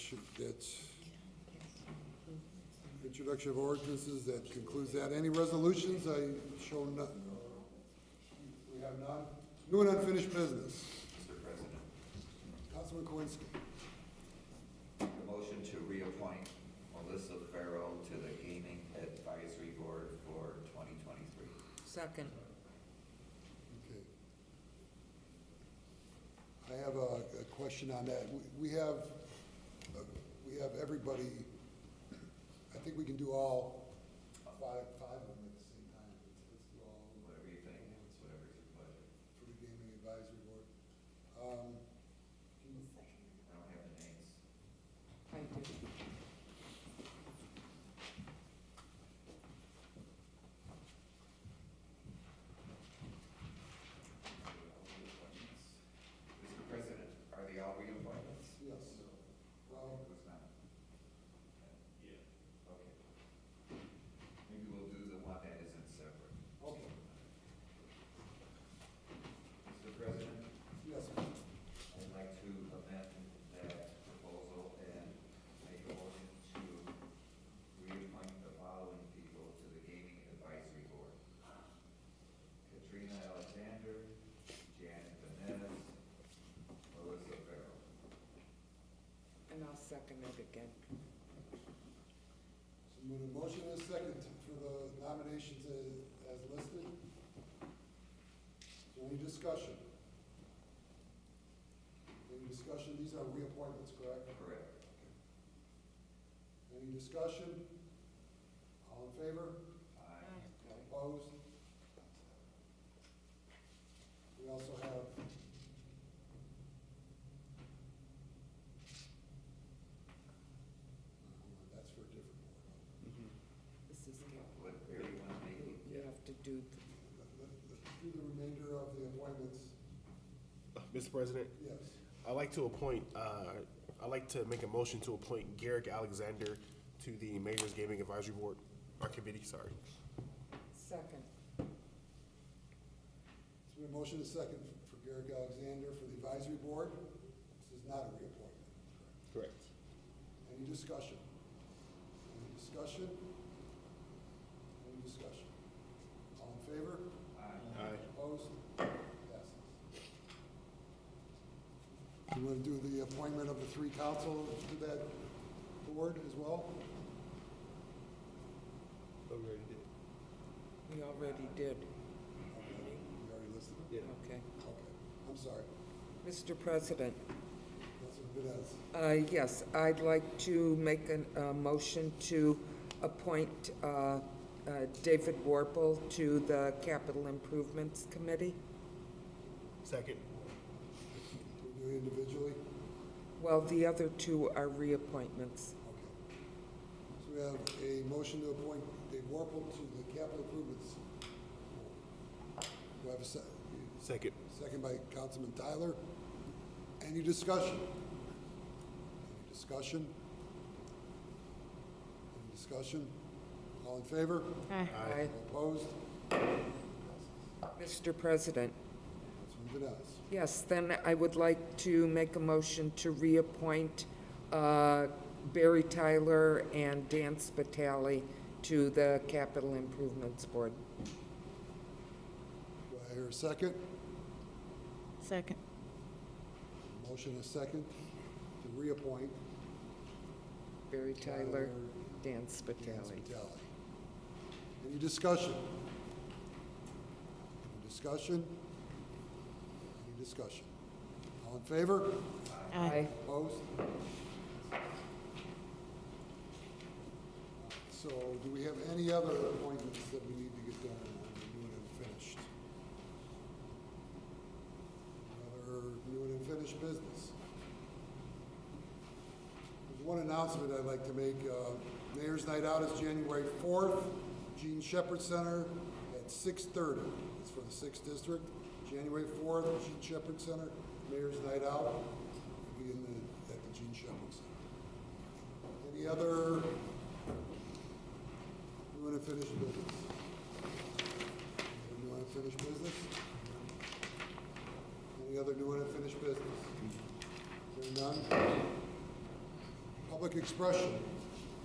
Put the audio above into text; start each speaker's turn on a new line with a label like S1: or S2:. S1: should, that's introduction of ordinances, that concludes that. Any resolutions? I show none. We have none. New and unfinished business.
S2: Mr. President,
S1: Councilman Kowinski.
S2: the motion to reappoint Melissa Farrell to the Gaming Advisory Board for 2023.
S3: Second.
S1: Okay. I have a, a question on that. We- We have, uh, we have everybody, I think we can do all five, five of them at the same time. Let's do all of them.
S2: Whatever you think, it's whatever's your pleasure.
S1: for the Gaming Advisory Board. Um,
S2: I don't have the names.
S3: I do.
S2: All reappointments. Mr. President, are they all reappointments?
S1: Yes. Well,
S2: Was not. Yeah. Okay. Maybe we'll do the one that isn't separate.
S1: Okay,
S2: Mr. President?
S1: yes.
S2: I'd like to amend that proposal and make a motion to reappoint the following people to the Gaming Advisory Board. Katrina Alexander, Janet Vanez, Melissa Farrell.
S3: And I'll second it again.
S1: So move a motion and a second for the nominations a- as listed. Is there any discussion? Any discussion? These are reappointments, correct?
S2: Correct.
S1: Any discussion? All in favor?
S2: Aye.
S1: Opposed? We also have. That's for a different board.
S4: Mm-hmm.
S3: This is, good.
S2: Would everyone make it?
S3: you have to do,
S1: Let- let- Let's do the remainder of the appointments.
S4: Mr. President,
S1: Yes.
S4: I'd like to appoint, uh, I'd like to make a motion to appoint Garrick Alexander to the Mayor's Gaming Advisory Board, or committee, sorry.
S3: second.
S1: So we have a motion and a second for Garrick Alexander for the advisory board. This is not a reappointment.
S4: Correct.
S1: Any discussion? Any discussion? Any discussion? All in favor?
S4: Aye.
S1: Opposed? Passes. You want to do the appointment of the three council to that board as well?
S3: We already did.
S1: You already listed them?
S3: Okay.
S1: Okay, I'm sorry.
S3: Mr. President,
S1: Councilman Vines.
S3: uh, yes, I'd like to make an- a motion to appoint uh, uh, David Warple to the Capital Improvements Committee.
S4: Second.
S1: Do we do it individually?
S3: Well, the other two are reappointments.
S1: Okay. So we have a motion to appoint Dave Warple to the Capital Improvements. Board. Do I have a se-
S4: Second.
S1: second by Councilman Tyler? Any discussion? Any discussion? Any discussion? All in favor?
S3: Aye.
S1: Opposed?
S3: Mr. President,
S1: Councilman Vines.
S3: Yes, then I would like to make a motion to reappoint uh, Barry Tyler and Dan Spitali to the Capital Improvements Board.
S1: Do I hear a second?
S5: Second.
S1: Motion is second to reappoint
S3: Barry Tyler, Dan
S1: Dan
S3: Spitali.
S1: Spitali. Any discussion? Any discussion? Any discussion? All in favor?
S3: Aye.
S1: Opposed? So do we have any other appointments that we need to get done on the new and unfinished? Other new and unfinished business? There's one announcement I'd like to make. Uh, Mayor's Night Out is January 4th, Gene Shepherd Center at 6:30. It's for the 6th District. January 4th, Gene Shepherd Center, Mayor's Night Out, will be in the, at the Gene Shepherd Center. Any other, you want to finish business? You want to finish business? Any other new unfinished business? Hearing none? public expression.